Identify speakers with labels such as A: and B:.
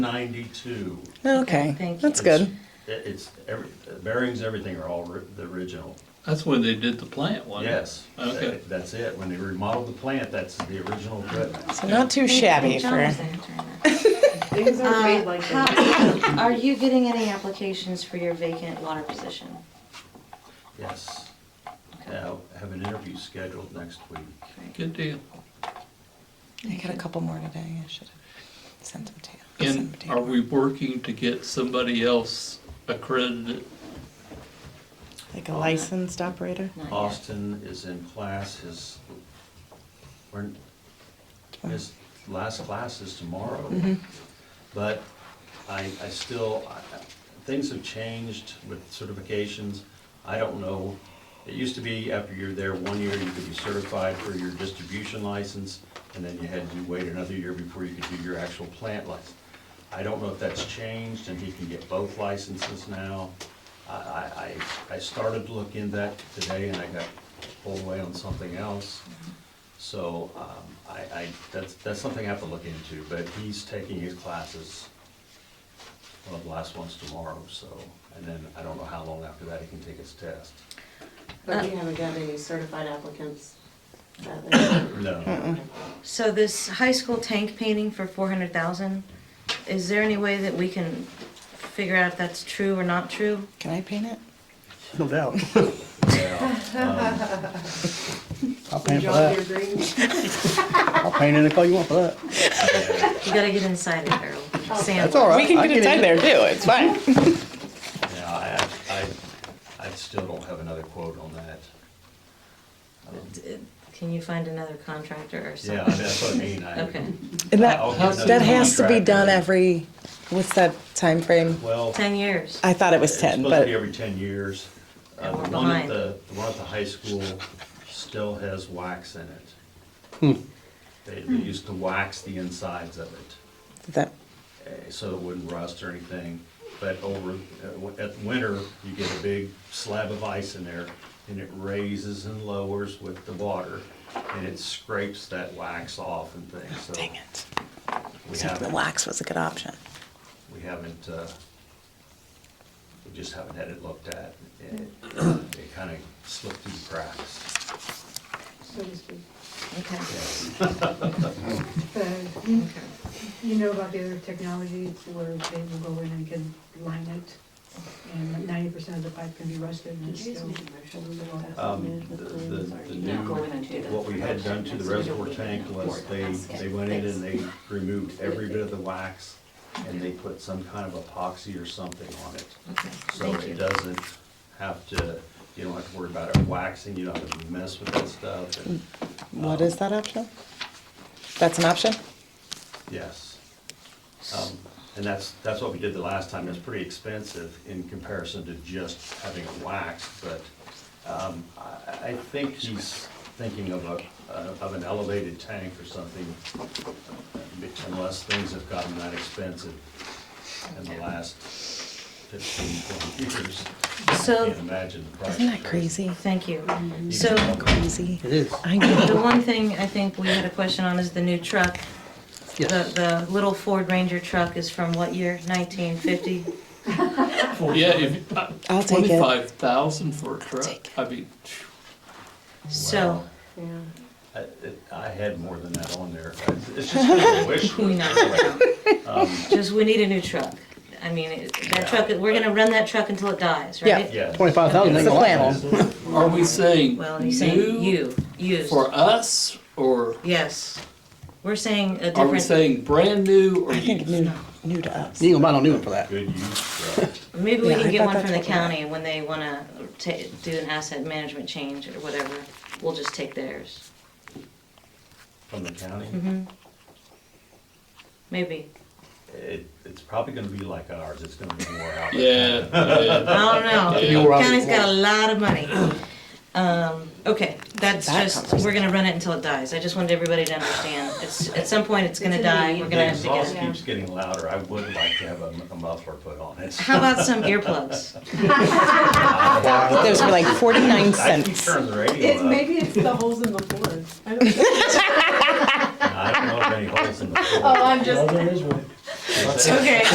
A: 92.
B: Okay,
C: Thank you.
B: that's good.
A: It- It's, every, the bearings, everything are all ri- the original.
D: That's when they did the plant, wasn't it?
A: Yes.
D: Okay.
A: that- That's it. When they remodeled the plant, that's the original equipment.
B: So not too shabby for,
E: Things are made like that.
C: Um, Are you getting any applications for your vacant water position?
A: Yes. Now, I have an interview scheduled next week.
D: Good deal.
B: I got a couple more today, I should have sent them to you. I'll send
D: And
B: them to you.
D: are we working to get somebody else accredited?
B: Like a licensed operator?
C: Not yet.
A: Austin is in class, his, we're- his last class is tomorrow. But I, I still, I- I- things have changed with certifications. I don't know, it used to be after you're there one year, you could be certified for your distribution license, and then you had to wait another year before you could do your actual plant license. I don't know if that's changed, and he can get both licenses now. I, I, I I started to look into that today, and I got pulled away on something else. So, um, I, I, that's, that's something I have to look into, but he's taking his classes, one of the last ones tomorrow, so, and then I don't know how long after that he can take his test.
E: But we haven't got any certified applicants. that they-
A: No,
C: So this high school tank painting for four hundred thousand, is there any way that we can figure out if that's true or not true?
B: Can I paint it?
F: No doubt.
A: yeah,
F: I'll paint for
E: Draw your
F: that.
E: green.
F: I'll paint any color you want for that.
A: um,
C: You gotta get inside it, Harold. Sam,
F: That's all right.
B: We can
F: I
B: get it tied there too, it's fine.
A: yeah, I, I, I still don't have another quote on that.
C: can you find another contractor or
A: Yeah,
C: something?
A: that's what I mean, I,
C: Okay,
B: And
A: I'll
B: that,
A: get another
B: that has to be
A: contractor.
B: done every, what's that time frame?
A: well.
C: ten years.
B: I thought it was
A: It's
B: ten,
A: supposed to be
B: but,
A: every ten years. Uh,
C: And we're
A: the one at
C: behind.
A: the, the one at the high school still has wax in it.
B: Hmm.
A: They, they used to wax the insides of it,
B: that,
A: eh, so it wouldn't rust or anything. But over, uh, w- at winter, you get a big slab of ice in there, and it raises and lowers with the water, and it scrapes that wax off and things, so.
B: Oh, dang it.
A: We
B: So the
A: haven't,
B: wax was a good option.
A: we haven't, uh, we just haven't had it looked at. It, it kind of slipped through the cracks.
E: So to speak.
C: Okay,
G: But
C: okay.
G: you- you know about the other technologies where they will go in and can line it, and ninety percent of the pipe can be rusted and it's still.
A: Um, the, the- the new, what we had done to the reservoir tank was they, they went in and they removed every bit of the wax and they put some kind of epoxy or something on it.
C: Okay,
A: So
C: thank
A: it
C: you.
A: doesn't have to, you don't have to worry about it waxing, you don't have to mess with that stuff. and- Um,
B: What is that option? That's an option?
A: Yes. Um, And that's, that's what we did the last time. It's pretty expensive in comparison to just having it waxed, but um, I I think he's thinking of a, of an elevated tank or something, unless things have gotten that expensive in the last 15, 20 years. I
C: So,
A: can't imagine the price.
B: Isn't that crazy?
C: thank you.
A: You
C: So,
A: can-
B: Crazy.
F: It is.
B: I know.
C: the one thing I think we had a question on is the new truck.
F: Yes.
C: The, the little Ford Ranger truck is from what year? Nineteen fifty?
D: Yeah, if, uh,
B: I'll take it.
D: twenty-five thousand for a truck,
B: take it.
D: I mean,
C: So,
E: Yeah.
A: I- it- I had more than that on there. It's just a wish.
C: we know, just, we need a new truck. I mean, it- that truck, we're gonna run that truck until it dies,
B: Yeah.
C: right?
A: Yeah.
F: Twenty-five thousand ain't
B: That's
F: gonna
B: the
F: last long.
D: are we saying
C: Well, he's saying
D: new
C: you, used.
D: for us, or
C: Yes. We're saying a
D: are we
C: different,
D: saying brand new or
B: I think
D: used?
B: new, new to us.
F: You ain't gonna buy no new one for that.
A: Good use, uh, right?
C: maybe we
B: Yeah, I
C: can get
B: thought
C: one
B: that's
C: from the
B: what we had.
C: county when they wanna ta, do an asset management change or whatever. We'll just take theirs.
A: from the county.
C: hmm Maybe.
A: It, it's probably gonna be like ours, it's gonna be more out.
D: Yeah, yeah.
C: I
D: Yeah.
C: don't know. County's Oh, got a lot of money. Um, okay, that's
B: That
C: just,
B: covers
C: we're gonna run it until it dies. I just wanted everybody to understand. It's, at some point, it's gonna die. We're
A: The
C: gonna have to
A: exhaust
C: get it.
A: keeps getting louder, I would like to have a a muffler put on it.
C: How about some earplugs?
B: Those were like forty-nine
A: I keep
B: cents.
A: turning the radio
G: uh,
E: It,
A: up,
E: maybe it's the holes in the floor. I don't-
A: I don't know if any holes in the floor.
E: Oh, I'm just,
H: Well, there is one.
I: Is that-
A: Okay.